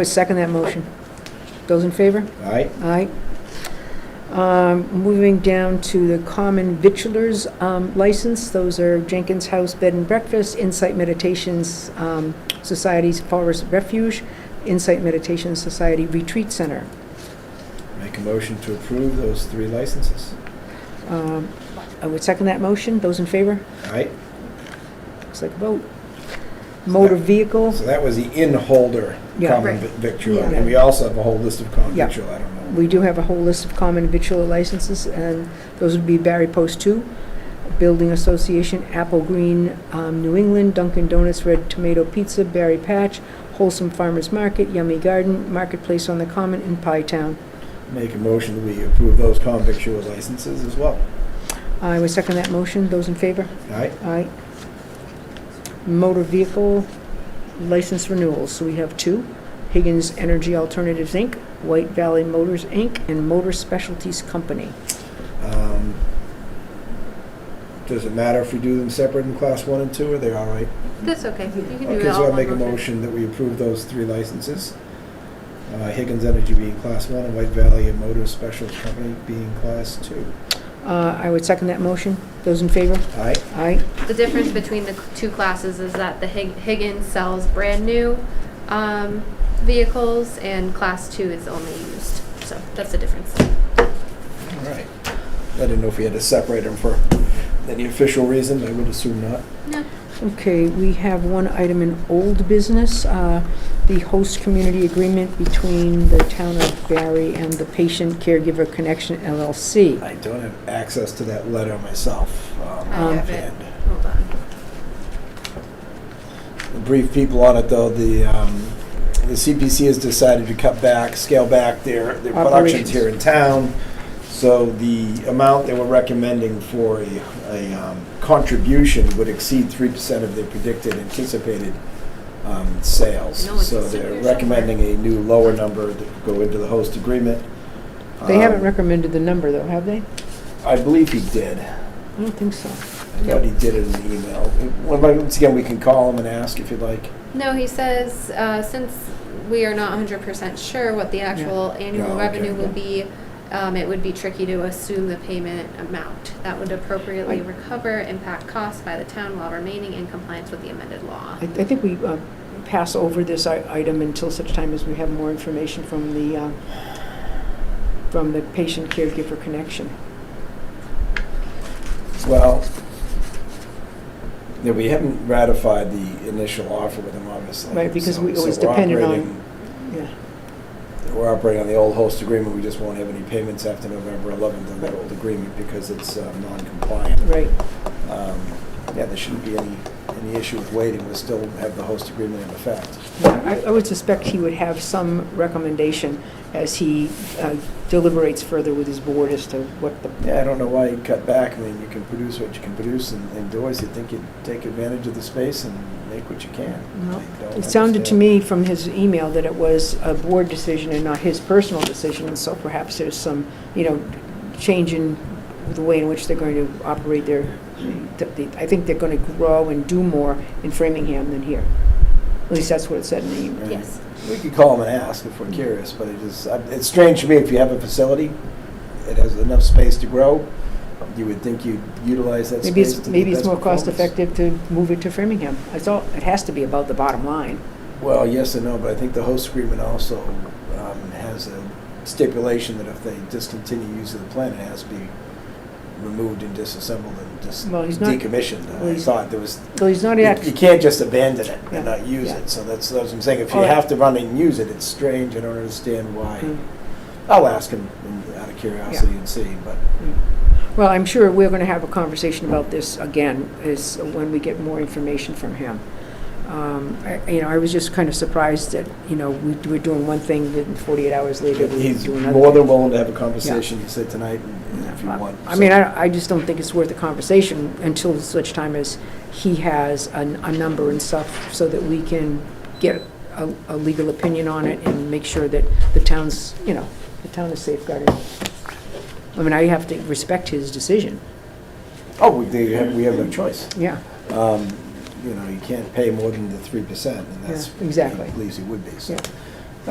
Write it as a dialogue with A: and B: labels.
A: I second that motion. Those in favor?
B: All right,
A: Aye. Um, Moving down to the common victualers um, license, those are Jenkins House Bed and Breakfast, Insight Meditations um, Society's Forest Refuge, Insight Meditation Society Retreat Center.
B: make a motion to approve those three licenses.
A: Um, I would second that motion. Those in favor?
B: All right,
A: Looks like a vote. Motor vehicle,
B: so that was the in-holder
A: Yeah.
B: common
C: Right.
B: vi- victual,
A: Yeah.
B: and we also have a whole list of common
A: Yeah.
B: victual, I don't know.
A: we do have a whole list of common victualer licenses, and those would be Barry Post Two, Building Association, Apple Green, um, New England, Dunkin' Donuts Red Tomato Pizza, Barry Patch, Wholesome Farmers Market, Yummy Garden, Marketplace on the Common, and Pie Town.
B: Make a motion that we approve those common victual licenses as well.
A: I would second that motion. Those in favor?
B: All right,
A: Aye. Motor vehicle license renewals, so we have two. Higgins Energy Alternatives, Inc., White Valley Motors, Inc., and Motor Specialties Company.
B: um, does it matter if we do them separate in class one and two, are they all right?
C: That's okay, you can do
B: Okay,
C: it all
B: so I'll
C: in
B: make a
C: one
B: motion that we approve those three licenses. Uh, Higgins Energy being class one, and White Valley and Motor Special Company being class two.
A: Uh, I would second that motion. Those in favor?
B: All right,
A: Aye.
C: The difference between the two classes is that the Hig- Higgins sells brand new um, vehicles and class two is only used. So that's the difference.
B: all right. I didn't know if we had to separate them for any official reason, I would assume not.
C: No.
A: Okay, we have one item in old business, uh, the host community agreement between the town of Barry and the Patient Caregiver Connection LLC.
B: I don't have access to that letter myself. um,
C: Oh, I
A: have
C: it.
B: and-
C: Hold on.
B: brief people on it, though, the, um, the CPC has decided to cut back, scale back their, their productions
A: Operations.
B: here in town. So the amount they were recommending for a, a um, contribution would exceed three percent of their predicted anticipated, um, sales.
C: No, it's
B: So they're
C: in there somewhere.
B: recommending a new lower number to go into the host agreement.
A: They haven't
B: Um,
A: recommended the number, though, have they?
B: I believe he did.
A: I don't think so.
B: I thought he did it in the email. Well, Once again, we can call him and ask if you'd like.
C: No, he says, uh, since we are not hundred percent sure what the actual
B: Yeah,
C: annual
B: okay.
C: revenue will be, um, it would be tricky to assume the payment amount. That would appropriately
A: I-
C: recover impact costs by the town while remaining in compliance with the amended law.
A: I I think we uh, pass over this i- item until such time as we have more information from the, uh, from the Patient Caregiver Connection.
B: Well, yeah, we haven't ratified the initial offer with them, obviously.
A: Right, because we- it
B: So- so
A: was
B: we're
A: dependent on-
B: operating-
A: Yeah.
B: We're operating on the old host agreement, we just won't have any payments after November 11th on that old agreement because it's uh, non-compliant.
A: Right.
B: Um, Yeah, there shouldn't be any, any issue with waiting, we still have the host agreement in effect.
A: I I would suspect he would have some recommendation as he uh, deliberates further with his board as to what the,
B: Yeah, I don't know why you cut back, I mean, you can produce what you can produce and and do as you think you'd take advantage of the space and make what you can.
A: No.
B: I don't
A: it sounded to
B: understand.
A: me from his email that it was a board decision and not his personal decision, and so perhaps there's some, you know, change in the way in which they're going to operate their, th- the- I think they're going to grow and do more in Framingham than here. At least that's what it said in the email.
B: Right.
C: Yes.
B: We could call them and ask if we're curious, but it is, uh, it's strange to me, if you have a facility, it has enough space to grow, you would think you'd utilize that
A: Maybe
B: space
A: it's,
B: to the
A: maybe it's
B: best
A: more
B: performance.
A: cost-effective to move it to Framingham. It's all, it has to be about the bottom line.
B: Well, yes and no, but I think the host agreement also um, has a stipulation that if they discontinue use of the plant, it has to be removed and disassembled and dis-
A: Well, he's not-
B: decommissioned.
A: well,
B: I
A: he's-
B: thought there was,
A: So he's not
B: you
A: act,
B: you can't just abandon it and
A: Yeah,
B: not use
A: yeah.
B: it, so that's, that's what I'm saying, if you
A: All right.
B: have to run and use it, it's strange, I don't understand why.
A: Mm,
B: I'll ask him in- out of curiosity and see, but
A: mm. Well, I'm sure we're going to have a conversation about this again, is when we get more information from him. Um, I- You know, I was just kind of surprised that, you know, we we're doing one thing, then 48 hours later, we
B: he's
A: do
B: more
A: another.
B: than willing to have a conversation, he said tonight, and if you want.
A: Uh, I mean, I I just don't think it's worth a conversation until such time as he has a a number and stuff, so that we can get a a legal opinion on it and make sure that the town's, you know, the town is safeguarded. I mean, I have to respect his decision,
B: Oh, we, they have, we have no choice.
A: yeah.
B: Um, you know, you can't pay more than the three percent, and that's.
A: Yeah, exactly.
B: At least it would be, so.
A: Yeah.